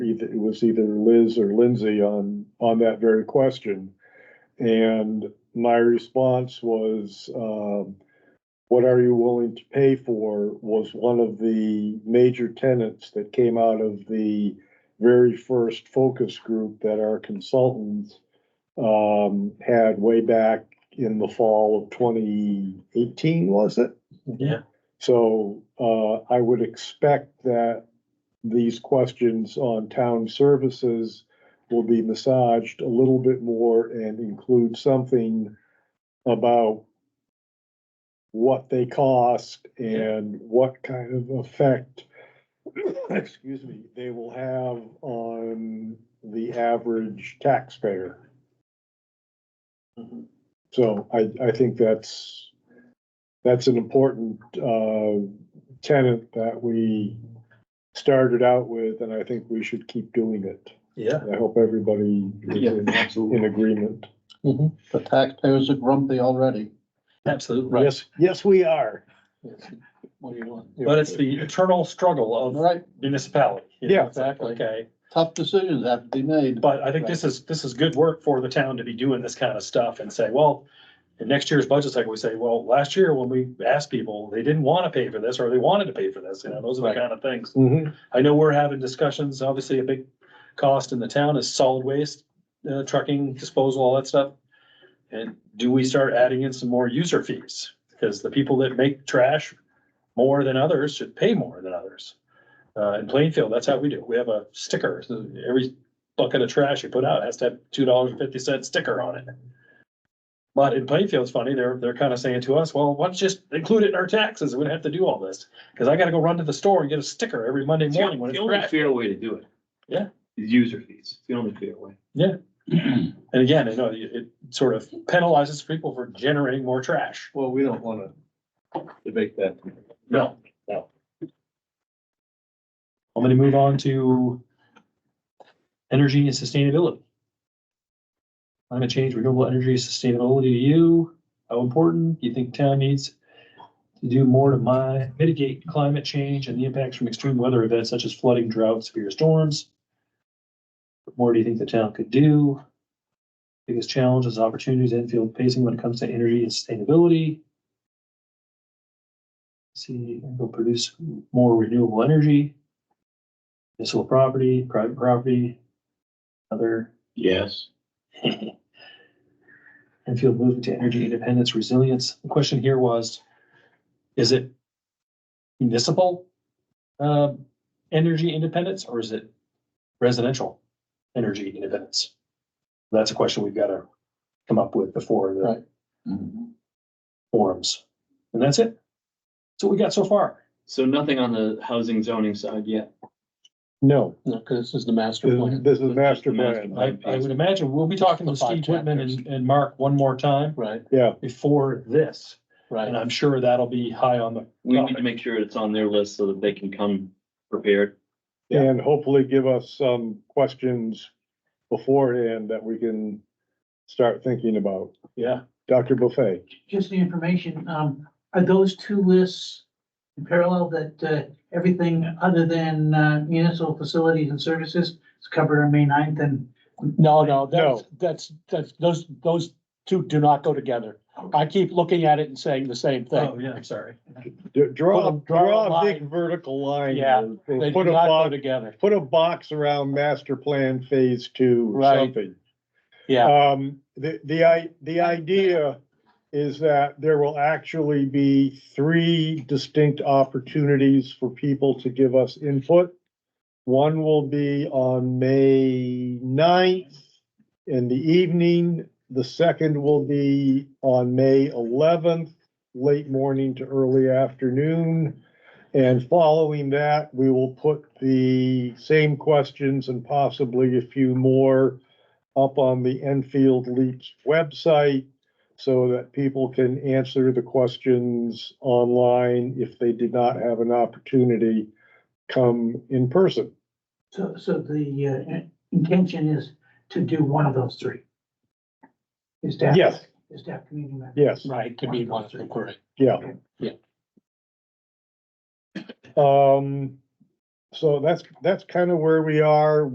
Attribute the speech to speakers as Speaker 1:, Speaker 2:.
Speaker 1: it it was either Liz or Lindsay on, on that very question. And my response was, um, what are you willing to pay for was one of the major tenets that came out of the very first focus group that our consultants um, had way back in the fall of twenty eighteen, was it?
Speaker 2: Yeah.
Speaker 1: So, uh, I would expect that these questions on town services will be massaged a little bit more and include something about what they cost and what kind of effect, excuse me, they will have on the average taxpayer.
Speaker 2: Mhm.
Speaker 1: So I, I think that's, that's an important, uh, tenet that we started out with, and I think we should keep doing it.
Speaker 2: Yeah.
Speaker 1: I hope everybody is
Speaker 2: Yeah,
Speaker 1: in- in
Speaker 2: absolutely.
Speaker 1: agreement.
Speaker 3: Mhm. The taxpayers are grumpy already.
Speaker 2: Absolutely.
Speaker 1: Yes, yes, we are.
Speaker 3: What do you want?
Speaker 2: But it's the eternal struggle
Speaker 3: All
Speaker 2: of
Speaker 3: right,
Speaker 2: municipality. you know,
Speaker 1: Yeah.
Speaker 2: it's like, Okay,
Speaker 3: tough decisions have to be made.
Speaker 2: but I think this is, this is good work for the town to be doing this kind of stuff and say, well, in next year's budget cycle, we say, well, last year when we asked people, they didn't want to pay for this or they wanted to pay for this, you know, those are the
Speaker 3: Right.
Speaker 2: kind of things.
Speaker 1: Mhm.
Speaker 2: I know we're having discussions, obviously a big cost in the town is solid waste, uh, trucking, disposal, all that stuff. And do we start adding in some more user fees? Because the people that make trash more than others should pay more than others. Uh, in Plainfield, that's how we do. it. We have a sticker. So Every bucket of trash you put out has to have two dollars and fifty cent sticker on it. But in Plainfield, it's funny, they're, they're kind of saying to us, well, why don't you just include it in our taxes? We don't have to do all this. Cause I gotta go run to the store and get a sticker every Monday
Speaker 4: It's the
Speaker 2: morning when
Speaker 4: only-
Speaker 2: it's
Speaker 4: the only
Speaker 2: trash.
Speaker 4: fair way to do it.
Speaker 2: Yeah.
Speaker 4: Is user fees, It's the only fair way.
Speaker 2: And again, I know it, it sort of penalizes people for generating more trash.
Speaker 3: Well, we don't wanna debate that.
Speaker 2: No, no. I'm gonna move on to energy and sustainability. Climate change, renewable energy, sustainability to you, how important do you think town needs to do more to mi- mitigate climate change and the impacts from extreme weather events such as flooding, droughts, severe storms? What more do you think the town could do? Biggest challenges, opportunities, and field pacing when it comes to energy and sustainability? see, and go produce more renewable energy. Municipal property, private property, other,
Speaker 4: Yes.
Speaker 2: and field movement to energy independence, resilience. The question here was, is it municipal uh, energy independence or is it residential energy independence? That's a question we've got to come up with before the
Speaker 3: Right.
Speaker 2: forums. And that's it. That's what we got so far.
Speaker 4: So nothing on the housing zoning side yet.
Speaker 1: No,
Speaker 3: No, cause this is the master plan.
Speaker 1: this is master
Speaker 4: the master
Speaker 1: plan.
Speaker 2: I, I would imagine we'll be talking to
Speaker 3: The five
Speaker 2: Steve Whitman and, and Mark one more time
Speaker 3: Right,
Speaker 2: before this, and
Speaker 3: right.
Speaker 2: I'm sure that'll be high on the,
Speaker 4: We need to make sure it's on their list so that they can come prepared.
Speaker 2: Yeah.
Speaker 1: And hopefully give us some questions beforehand that we can start thinking about.
Speaker 2: yeah.
Speaker 1: Dr. Buffet,
Speaker 5: just the information, um, are those two lists in parallel that, uh, everything other than, uh, municipal facilities and services is covered on May 9th and
Speaker 6: No, no, that's, that's, that's, those, those two do not go together. I keep looking at it and saying the same thing.
Speaker 2: Oh, yeah, I'm sorry.
Speaker 1: d- draw,
Speaker 6: Put a- draw a
Speaker 1: draw a big
Speaker 6: line.
Speaker 1: vertical line.
Speaker 6: Yeah,
Speaker 1: or- or
Speaker 6: They do
Speaker 1: Put a
Speaker 6: not go
Speaker 1: box,
Speaker 6: together.
Speaker 1: put a box around master plan phase two or
Speaker 6: Right.
Speaker 1: something.
Speaker 6: Yeah,
Speaker 1: Um, the, the, i- the idea is that there will actually be three distinct opportunities for people to give us input. One will be on May 9th in the evening. The second will be on May eleventh, late morning to early afternoon. And following that, we will put the same questions and possibly a few more up on the Enfield Leaps website so that people can answer the questions online if they did not have an opportunity come in person.
Speaker 5: so, so the, uh, intention is to do one of those three. Is staff?
Speaker 1: Yes.
Speaker 5: Is staff community member?
Speaker 1: Yes,
Speaker 6: right, to be one of them, correct.
Speaker 1: yeah.
Speaker 6: Yeah.
Speaker 1: Um, so that's, that's kind of where we are.